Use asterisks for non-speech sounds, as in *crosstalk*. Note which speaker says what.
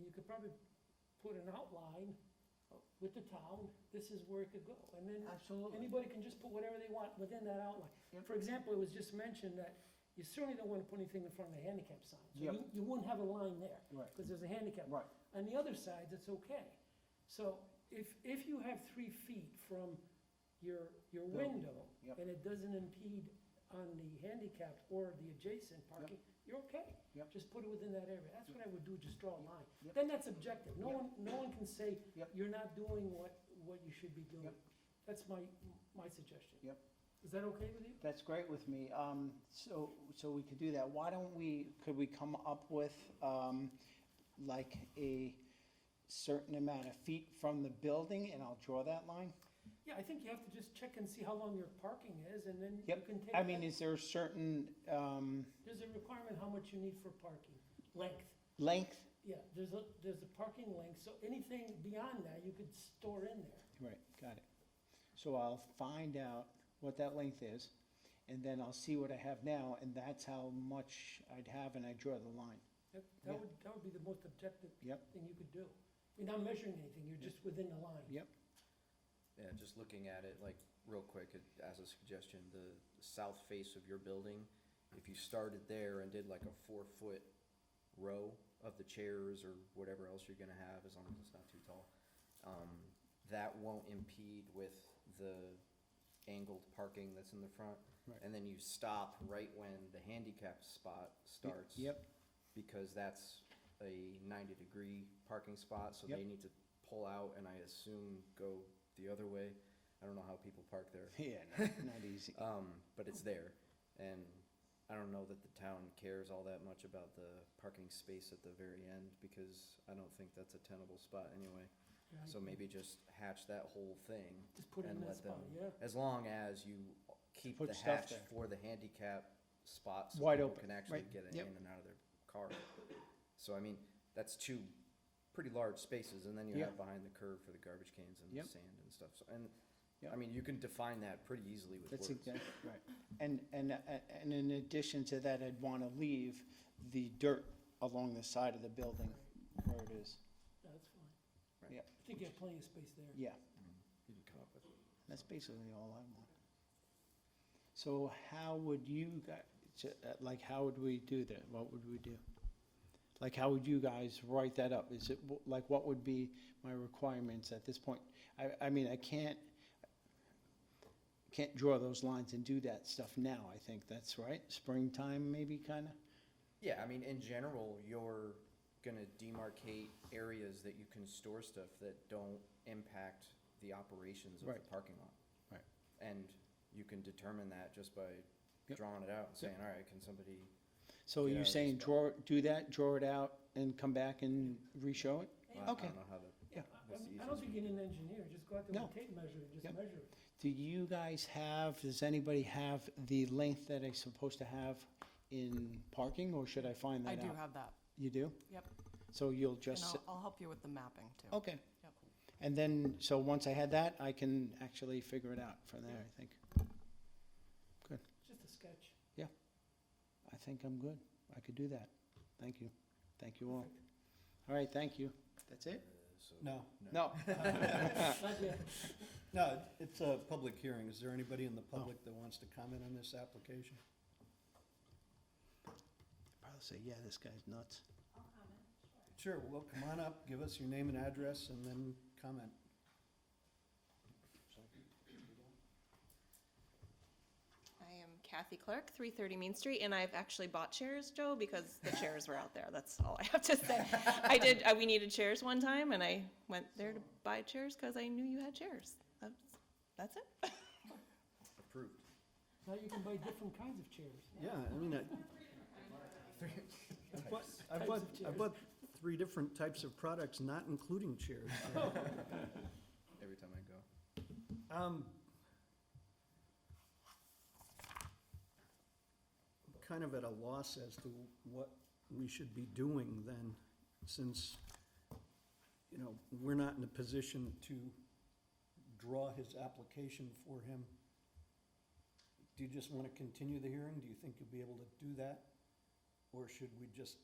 Speaker 1: you could probably put an outline with the town, this is where it could go, and then
Speaker 2: Absolutely.
Speaker 1: anybody can just put whatever they want within that outline.
Speaker 2: Yep.
Speaker 1: For example, it was just mentioned that you certainly don't wanna put anything in front of the handicap sign, so
Speaker 2: Yep.
Speaker 1: you, you wouldn't have a line there,
Speaker 2: Right,
Speaker 1: cause there's a handicap.
Speaker 2: right.
Speaker 1: On the other side, it's okay. So if, if you have three feet from your, your
Speaker 2: Building,
Speaker 1: window,
Speaker 2: yep.
Speaker 1: and it doesn't impede on the handicapped or the adjacent parking, you're okay.
Speaker 2: Yep.
Speaker 1: Just put it within that area. That's what I would do, just draw a line.
Speaker 2: Yep.
Speaker 1: Then that's objective. No
Speaker 2: Yep.
Speaker 1: one, no one can say,
Speaker 2: Yep.
Speaker 1: you're not doing what, what you should be doing.
Speaker 2: Yep.
Speaker 1: That's my, my suggestion.
Speaker 2: Yep.
Speaker 1: Is that okay with you?
Speaker 2: That's great with me. Um, so, so we could do that. Why don't we, could we come up with, um, like a certain amount of feet from the building and I'll draw that line?
Speaker 1: Yeah, I think you have to just check and see how long your parking is, and then you
Speaker 2: Yep.
Speaker 1: can take.
Speaker 2: I mean,
Speaker 1: that.
Speaker 2: is there a certain, um,
Speaker 1: There's a requirement how much you need for parking, length.
Speaker 2: length?
Speaker 1: Yeah, there's a, there's a parking link, so anything beyond that, you could store in there.
Speaker 2: Right, got it. So I'll find out what that length is and then I'll see what I have now and that's how much I'd have and I draw the line.
Speaker 1: That, that
Speaker 2: Yeah.
Speaker 1: would, that would be the most objective
Speaker 2: Yep.
Speaker 1: thing you could do. You're not measuring anything, you're just within the line.
Speaker 2: Yep.
Speaker 3: Yeah, just looking at it, like, real quick, it- as a suggestion, the south face of your building, if you started there and did like a four-foot row of the chairs or whatever else you're gonna have, as long as it's not too tall, um, that won't impede with the angled parking that's in the front.
Speaker 2: Right.
Speaker 3: And then you stop right when the handicap spot
Speaker 2: Y-
Speaker 3: starts
Speaker 2: Yep,
Speaker 3: because that's a ninety-degree parking spot, so they
Speaker 2: Yep.
Speaker 3: need to pull out and I assume go the other way. I don't know how people park there,
Speaker 2: yeah, not not easy.
Speaker 3: um, but it's there, and I don't know that the town cares all that much about the parking space at the very end, because I don't think that's a tenable spot anyway.
Speaker 1: Yeah, I
Speaker 3: So
Speaker 1: agree.
Speaker 3: maybe just hatch that whole thing,
Speaker 1: Just put it in
Speaker 3: and
Speaker 1: that
Speaker 3: let
Speaker 1: spot,
Speaker 3: them-
Speaker 1: yeah.
Speaker 3: as long as you keep
Speaker 2: put
Speaker 3: the
Speaker 2: stuff
Speaker 3: hatch
Speaker 2: there.
Speaker 3: for the handicap spots.
Speaker 2: Wide open,
Speaker 3: Can actually
Speaker 2: right,
Speaker 3: get it
Speaker 2: yep.
Speaker 3: in and out of their car. So I mean, that's two pretty large spaces, and then you
Speaker 2: Yeah.
Speaker 3: have behind the curve for the garbage cans and
Speaker 2: Yep.
Speaker 3: the sand and stuff, so, and,
Speaker 2: Yep.
Speaker 3: I mean, you can define that pretty easily with
Speaker 2: That's
Speaker 3: words.
Speaker 2: exactly right. And, and, a- and in addition to that, I'd want to leave the dirt along the side of the building where it is.
Speaker 1: Yeah, That's fine.
Speaker 3: Right.
Speaker 2: Yeah.
Speaker 1: I think you have plenty of space there.
Speaker 2: Yeah,
Speaker 3: You can come up with.
Speaker 2: that's basically all I want. So how would you guys, like, how would we do that? What would we do? Like, how would you guys write that up? Is it, wh- like, what would be my requirements at this point? I, I mean, I can't, can't draw those lines and do that stuff now, I think. That's right. Springtime, maybe, kind of?
Speaker 3: Yeah, I mean, in general, you're gonna demarcate areas that you can store stuff that don't impact the operations of the
Speaker 2: Right.
Speaker 3: parking lot.
Speaker 2: Right.
Speaker 3: And you can determine that just by
Speaker 2: Yep.
Speaker 3: drawing it out and saying, all right, can somebody,
Speaker 2: So
Speaker 3: Yeah,
Speaker 2: you're
Speaker 3: just
Speaker 2: saying
Speaker 3: about.
Speaker 2: draw, do that, draw it out and come back and re-show it?
Speaker 3: I I don't
Speaker 2: Okay.
Speaker 3: know how to,
Speaker 1: Yeah, I- I
Speaker 3: That's the
Speaker 1: mean, I
Speaker 3: easiest
Speaker 1: don't think you need an engineer, just go out there with
Speaker 2: No.
Speaker 1: a tape measure and just
Speaker 2: Yep.
Speaker 1: measure it.
Speaker 2: Do you guys have, does anybody have the length that I'm supposed to have in parking or should I find
Speaker 4: I
Speaker 2: that
Speaker 4: do
Speaker 2: out?
Speaker 4: have that,
Speaker 2: You do?
Speaker 4: yep.
Speaker 2: So you'll
Speaker 4: And
Speaker 2: just,
Speaker 4: I'll,
Speaker 2: s-
Speaker 4: I'll help you with the mapping too.
Speaker 2: okay.
Speaker 4: Yep.
Speaker 2: And then, so once I had that, I can actually figure it out from there, I think.
Speaker 1: Just a
Speaker 3: *laughs*
Speaker 1: sketch.
Speaker 2: I think I'm good. I could do that. Thank you. Thank you all.
Speaker 1: Perfect.
Speaker 2: All right, thank you. That's it?
Speaker 3: uh, so.
Speaker 5: No,
Speaker 2: No.
Speaker 1: Not
Speaker 3: *laughs*
Speaker 1: yet.
Speaker 5: no, it's a public hearing. Is there anybody in the
Speaker 3: Oh.
Speaker 5: public that wants to comment on this application?
Speaker 2: Probably say, yeah, this guy's nuts.
Speaker 5: Sure, well, come on up, give us your name and address, and then comment.
Speaker 6: I am Kathy Clark, 330 Main Street, and I've actually bought chairs, Joe, because the chairs were out there. That's all I have
Speaker 4: *laughs*
Speaker 6: to say. I did, uh, we needed chairs one time, and I went there to buy chairs because I knew you had chairs. That's, that's it.
Speaker 3: Approved.
Speaker 1: Now you can buy different kinds of chairs.
Speaker 5: Yeah, I mean, I. I bought, I bought,
Speaker 1: Types of
Speaker 5: I
Speaker 1: chairs.
Speaker 5: bought three different types of products, not including
Speaker 1: *laughs*
Speaker 5: chairs.
Speaker 3: Every time I go.
Speaker 5: Um, I'm Kind of at a loss as to what we should be doing then, since, you know, we're not in a position to draw his application for him. Do you just want to continue the hearing? Do you think you'll be able to do that? Or should we just